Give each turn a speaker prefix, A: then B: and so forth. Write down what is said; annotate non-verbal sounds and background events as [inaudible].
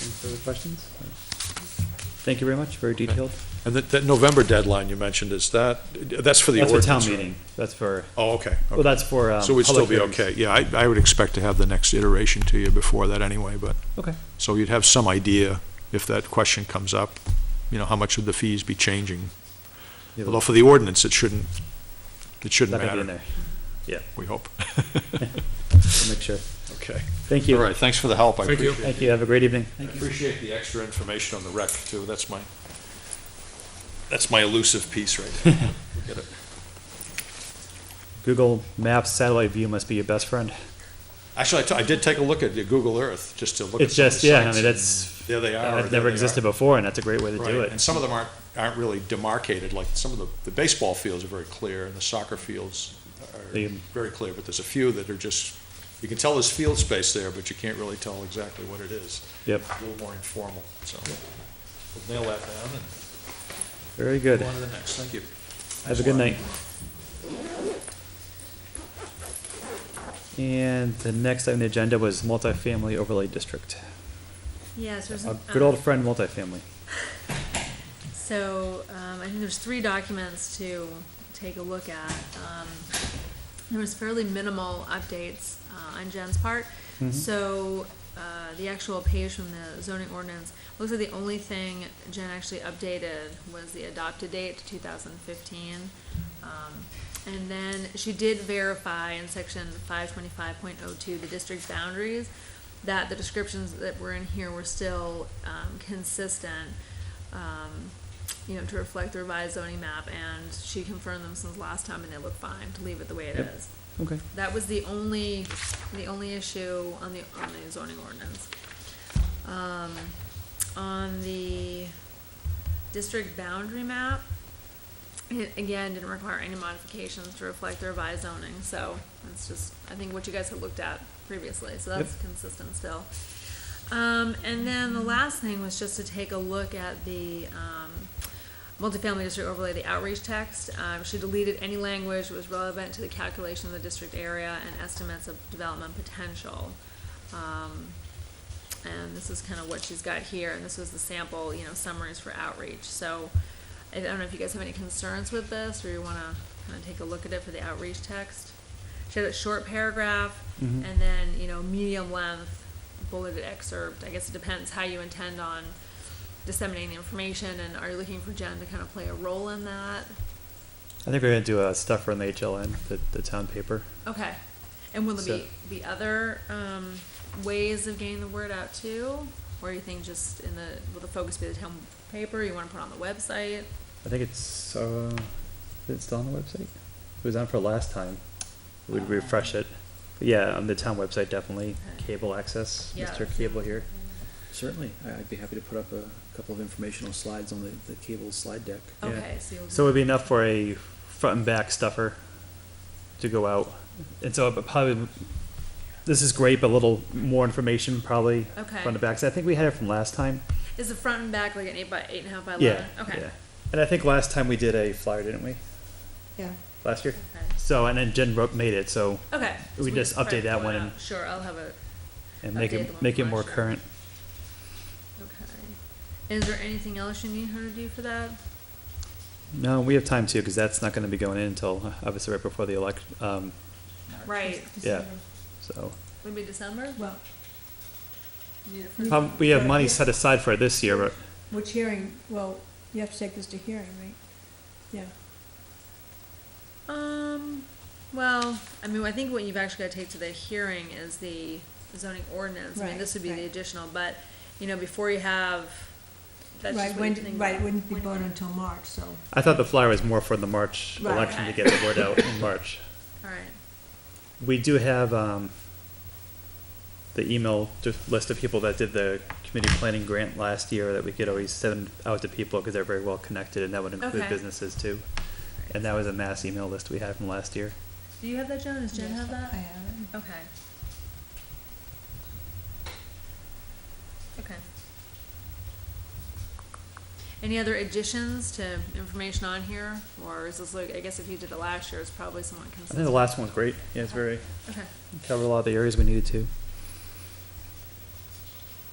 A: Any further questions? Thank you very much, very detailed.
B: And that, that November deadline you mentioned, is that, that's for the
A: That's for
B: ordinance?
A: town
B: right?
A: meeting, that's for,
B: Oh, okay.
A: well,
B: okay.
A: that's for, um.
B: So we'd still
A: public
B: be
A: hearings.
B: okay. Yeah, I, I would expect to have the next iteration to you before that anyway, but.
A: Okay.
B: So you'd have some idea if that question comes up, you know, how much would the fees be changing?
A: Yeah,
B: Although for the ordinance, it shouldn't, it
A: That
B: shouldn't
A: might be in
B: matter,
A: there,
B: we hope. [laughs]
A: we'll make sure.
B: Okay.
A: Thank
B: All
A: you.
B: right, thanks for the help. I
C: Thank you.
B: appreciate it.
A: Thank you, have a great evening.
B: I appreciate the extra information on the rec too. That's my, that's my elusive piece right there.
A: [laughs]
B: We get it.
A: Google Maps satellite view must be your best friend.
B: Actually, I t- I did take a look at the Google Earth, just to look at
A: It's
B: some of the
A: just, yeah, I
B: sites.
A: mean, that's,
B: There they are. or
A: that
B: there
A: never
B: they
A: existed
B: are.
A: before, and that's a great way to do
B: Right, and
A: it.
B: some of them aren't, aren't really demarcated, like some of the, the baseball fields are very clear, and the soccer fields are
A: They-
B: very clear, but there's a few that are just, you can tell there's field space there, but you can't really tell exactly what it is.
A: Yep,
B: A little more informal, so we'll nail that down and
A: very good.
B: go on to the next, thank you.
A: Have a good night. And the next item on the agenda was multifamily overlay district.
D: Yes, there's,
A: A
D: an-
A: Uh, good
D: um,
A: old friend multifamily.
D: so, um, I think there's three documents to take a look at. Um, there was fairly minimal updates, uh, on Jen's part.
A: Mm-hmm.
D: So, uh, the actual page from the zoning ordinance, looks like the only thing Jen actually updated was the adopted date to two thousand fifteen. Um, and then she did verify in section five twenty-five point oh two, the district boundaries, that the descriptions that were in here were still, um, consistent, um, you know, to reflect the revised zoning map, and she confirmed them since last time, and they look fine, to leave it the way it
A: Yep.
D: is.
A: Okay.
D: That was the only, the only issue on the, on the zoning ordinance. Um, on the district boundary map, it again didn't require any modifications to reflect the revised zoning, so that's just, I think what you guys had looked at previously, so that's
A: Yep.
D: consistent still. Um, and then the last thing was just to take a look at the, um, multifamily district overlay, the outreach text. Um, she deleted any language that was relevant to the calculation of the district area and estimates of development potential. Um, and this is kind of what she's got here, and this was the sample, you know, summaries for outreach, so I don't know if you guys have any concerns with this, or you wanna kinda take a look at it for the outreach text. She had a short paragraph,
A: Mhm.
D: and then, you know, medium length bulleted excerpt, I guess it depends how you intend on disseminating the information, and are you looking for Jen to kind of play a role in that?
A: I think we're gonna do uh, a stuffer in the HLN, the, the town paper.
D: Okay, and will there
A: So-
D: be, be other, um, ways of getting the word out too? Or you think just in the, will the focus be the town paper, you wanna put it on the website?
A: I think it's, uh, is it still on the website? It was on for last time. We'd refresh it. But yeah, on the town website, definitely.
D: Ah. Okay.
A: Cable access,
D: Yeah.
A: Mr. Cable here.
E: Certainly, I- I'd be happy to put up a couple of informational slides on the, the cable slide deck.
A: Yeah.
D: Okay, so you'll.
A: So it would be enough for a front and back stuffer to go out. And so it probably, this is great, but a little more information probably
D: Okay.
A: front and back. So I think we had it from last time.
D: Is the front and back like an eight by eight and a half by
A: Yeah.
D: eleven? Okay.
A: yeah. And I think last time we did a flyer, didn't we?
D: Yeah.
A: Last year?
D: Okay.
A: So, and then Jen wrote, made it, so,
D: Okay.
A: We just
D: try to
A: update that
D: pull it
A: one
D: out.
A: and-
D: Sure, I'll have a,
A: and make
D: Update the
A: it,
D: one
A: make it
D: from
A: more
D: last year.
A: current.
D: okay. Is there anything else you need her to do for that?
A: No, we have time too, because that's not gonna be going in until, uh, obviously, right before the elec, um,
D: Right,
A: yeah, so.
D: would be December?
F: Well,
D: Need it for-
A: Um, we have
F: Yeah,
A: money
F: yeah.
A: set aside for it this year, but
F: which hearing, well, you have to take this to hearing, right? Yeah.
D: Um, well, I mean, I think what you've actually got to take to the hearing is the zoning ordinance. I mean,
F: Right,
D: this would be the
F: right.
D: additional, but, you know, before you have, that's
F: Right,
D: just what you
F: when-
D: think.
F: Right, it wouldn't be
D: when-
F: voted until March, so.
A: I thought the flyer was more for the March
F: Right.
A: election to get the word out in March.
D: All right,
A: We do have, um, the email, just list of people that did the community planning grant last year that we could always send out to people, because they're very well connected, and that would include
D: Okay.
A: businesses too. And that was a mass email list we had from last year.
D: do you have that, Jen? Does Jen
F: Yes,
D: have that?
F: I have it.
D: Okay. Okay. Any other additions to information on here, or is this like, I guess if you did it last year, it's probably somewhat
A: I think the
D: consistent?
A: last one's great. Yeah, it's very,
D: Okay,
A: covered a lot of the areas we needed to.